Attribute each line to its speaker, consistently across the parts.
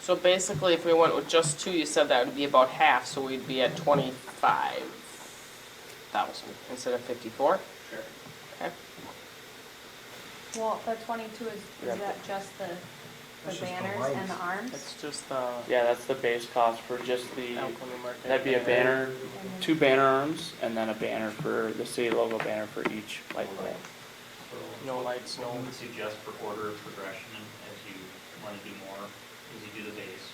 Speaker 1: So basically, if we went with just two, you said that would be about half, so we'd be at twenty-five thousand instead of fifty-four?
Speaker 2: Sure.
Speaker 1: Okay,
Speaker 3: Well, the twenty-two is,
Speaker 1: Yeah.
Speaker 3: is that just the, the
Speaker 2: That's just the
Speaker 3: banners and the
Speaker 2: lights.
Speaker 3: arms?
Speaker 1: that's just the
Speaker 4: Yeah, that's the base cost for just the,
Speaker 1: Alcalá market.
Speaker 4: that'd be a banner,
Speaker 3: And then-
Speaker 4: two banner arms, and then a banner for, the city logo banner for each light pole.
Speaker 2: So
Speaker 1: No lights, no,
Speaker 2: what we would suggest for order of progression, as you want to do more, is you do the base.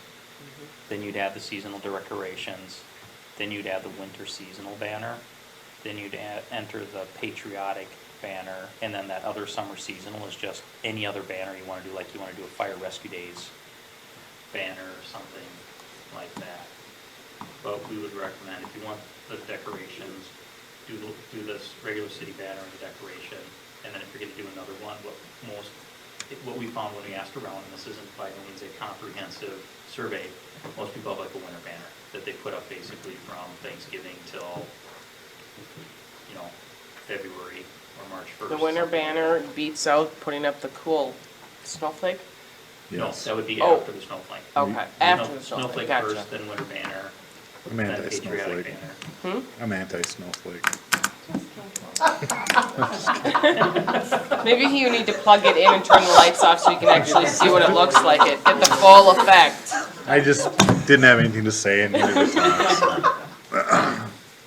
Speaker 2: Then you'd add the seasonal decorations, then you'd add the winter seasonal banner, then you'd add, enter the patriotic banner, and then that other summer seasonal is just any other banner you want to do, like you want to do a fire rescue days banner or something like that. But we would recommend, if you want the decorations, do, the- do this regular city banner and the decoration, and then if you're gonna do another one, what most, it- what we found when we asked around, and this isn't by no means a comprehensive survey, most people have like a winter banner that they put up basically from Thanksgiving till, you know, February or March first.
Speaker 1: the winter banner beats out putting up the cool snowflake?
Speaker 2: No,
Speaker 5: Yes.
Speaker 2: that would be
Speaker 1: Oh.
Speaker 2: after the snowflake.
Speaker 1: Okay, after the snowflake, gotcha.
Speaker 2: first, then winter banner,
Speaker 5: I'm
Speaker 2: then
Speaker 5: anti-snowflake.
Speaker 2: patriotic banner.
Speaker 1: Hmm?
Speaker 5: I'm anti-snowflake.
Speaker 1: Maybe you need to plug it in and turn the lights off so you can actually see what it looks like it, get the full effect.
Speaker 5: I just didn't have anything to say and neither did Tom. so.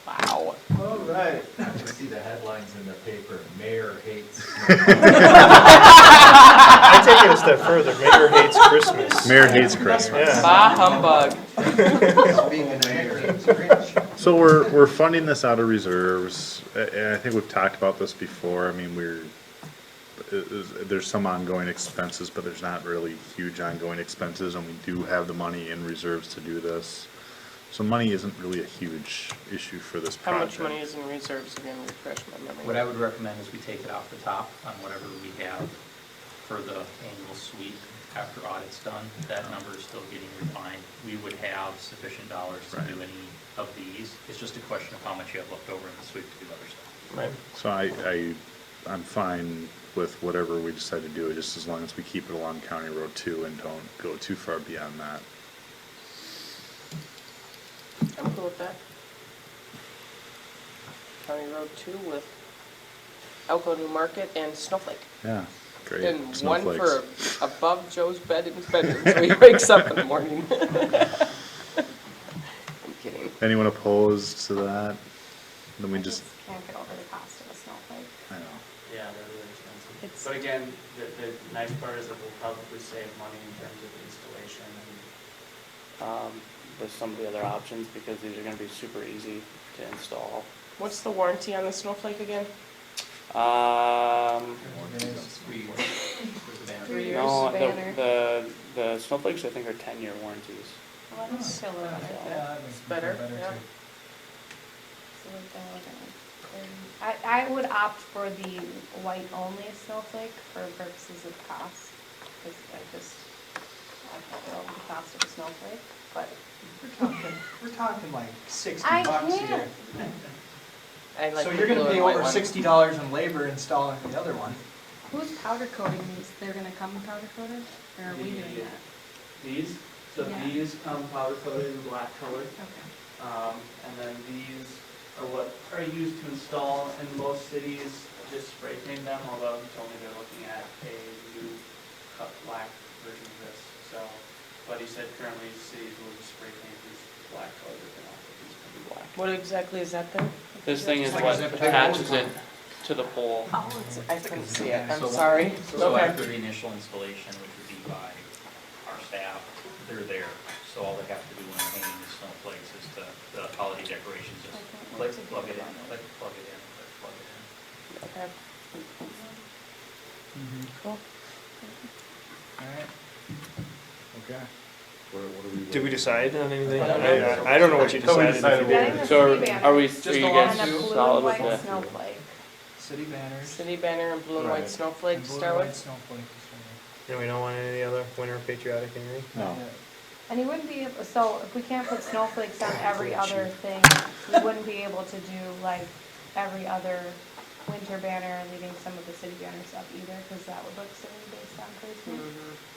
Speaker 1: Wow.
Speaker 6: All right. I see the headlines in the paper, mayor hates.
Speaker 7: I take it a step further. Mayor hates Christmas.
Speaker 5: Mayor hates Christmas.
Speaker 7: Yeah.
Speaker 1: Bah humbug.
Speaker 6: Being a mayor.
Speaker 5: So we're, we're funding this out of reserves, a- and I think we've talked about this before, I mean, we're, i- is- there's some ongoing expenses, but there's not really huge ongoing expenses, and we do have the money in reserves to do this. So money isn't really a huge issue for this
Speaker 1: How
Speaker 5: project.
Speaker 1: much money is in reserves again? Refresh my memory.
Speaker 2: What I would recommend is we take it off the top on whatever we have for the annual sweep after audit's done. That number is still getting refined. We would have sufficient dollars to do any of these. It's just a question of how much you have left over in the sweep to do other stuff.
Speaker 1: Right.
Speaker 5: So I, I, I'm fine with whatever we decide to do, just as long as we keep it along County Road two and don't go too far beyond that.
Speaker 1: I'm cool with that. County Road two with Elko New Market and Snowflake.
Speaker 5: Yeah, great.
Speaker 1: And one for
Speaker 5: Snowflakes.
Speaker 1: above Joe's bed in his bedroom, so he wakes up in the morning. I'm kidding.
Speaker 5: Anyone opposed to that? Then we just,
Speaker 3: just Can't get over the cost of a snowflake.
Speaker 5: I know.
Speaker 4: Yeah, they're really
Speaker 3: It's-
Speaker 4: expensive. But again, the, the nice part is that we'll probably save money in terms of installation and, um, with some of the other options, because these are gonna be super easy to install.
Speaker 1: What's the warranty on the Snowflake again?
Speaker 4: Um,
Speaker 2: Three years worth of banner.
Speaker 3: Three years
Speaker 4: no, the,
Speaker 3: banner.
Speaker 4: the, the snowflakes, I think, are ten-year warranties.
Speaker 3: Well,
Speaker 2: Hmm.
Speaker 3: that's still a little better.
Speaker 1: It's better, yeah.
Speaker 3: So we're gonna look at it. I, I would opt for the white only snowflake for purposes of cost, because I just, I don't know the cost of a snowflake, but.
Speaker 8: We're talking, we're talking like sixty
Speaker 3: I
Speaker 8: bucks
Speaker 3: can't.
Speaker 8: here.
Speaker 1: I like
Speaker 8: So
Speaker 1: the
Speaker 8: you're gonna
Speaker 1: blue
Speaker 8: pay
Speaker 1: and white
Speaker 8: over
Speaker 1: one.
Speaker 8: sixty dollars in labor installing the other one.
Speaker 3: Who's powder coating these? They're gonna come powder coated, or are we doing that?
Speaker 4: These,
Speaker 3: so Yeah. these
Speaker 4: come powder coated in black color,
Speaker 3: Okay.
Speaker 4: Um, and then these are what are used to install in most cities, just spray paint them, although he told me they're looking at a new cut black version of this, so. But he said currently cities will just spray paint these black colors, they're not, these can be black.
Speaker 1: What exactly is that then?
Speaker 4: This thing is
Speaker 8: Like
Speaker 4: what
Speaker 8: zip tie.
Speaker 4: attaches it to the pole.
Speaker 1: Oh, it's, I couldn't see it,
Speaker 2: So-
Speaker 1: I'm sorry.
Speaker 2: So
Speaker 1: Okay.
Speaker 2: after the initial installation, which would be by our staff, they're there. So all they have to do when they're hanging the snowflakes is the, the holiday decorations, just click, plug it in, click, plug it in, click, plug it in.
Speaker 1: Okay. Cool.
Speaker 5: Okay.
Speaker 7: Did we decide on anything?
Speaker 1: I don't
Speaker 5: know.
Speaker 7: I don't know what you
Speaker 5: So we decided
Speaker 7: decided. to do.
Speaker 3: Getting the
Speaker 4: So
Speaker 3: city
Speaker 4: are-
Speaker 3: banner
Speaker 4: are we, are
Speaker 8: the
Speaker 4: you
Speaker 8: last
Speaker 4: guys
Speaker 3: And a blue
Speaker 4: solid
Speaker 3: and
Speaker 4: with
Speaker 3: white
Speaker 4: that?
Speaker 3: snowflake.
Speaker 8: City banners.
Speaker 1: City banner and blue and white
Speaker 5: Right.
Speaker 1: snowflake,
Speaker 8: and blue
Speaker 1: Star
Speaker 8: and white
Speaker 1: Wars.
Speaker 8: snowflake.
Speaker 7: And we don't want any other winter patriotic anything?
Speaker 1: Oh.
Speaker 5: No.
Speaker 3: And you wouldn't be, able. so if we can't put snowflakes on every other thing, we wouldn't be able to do like every other winter banner, leaving some of the city banners up either, because that would look silly based on Christmas.
Speaker 1: Mhm.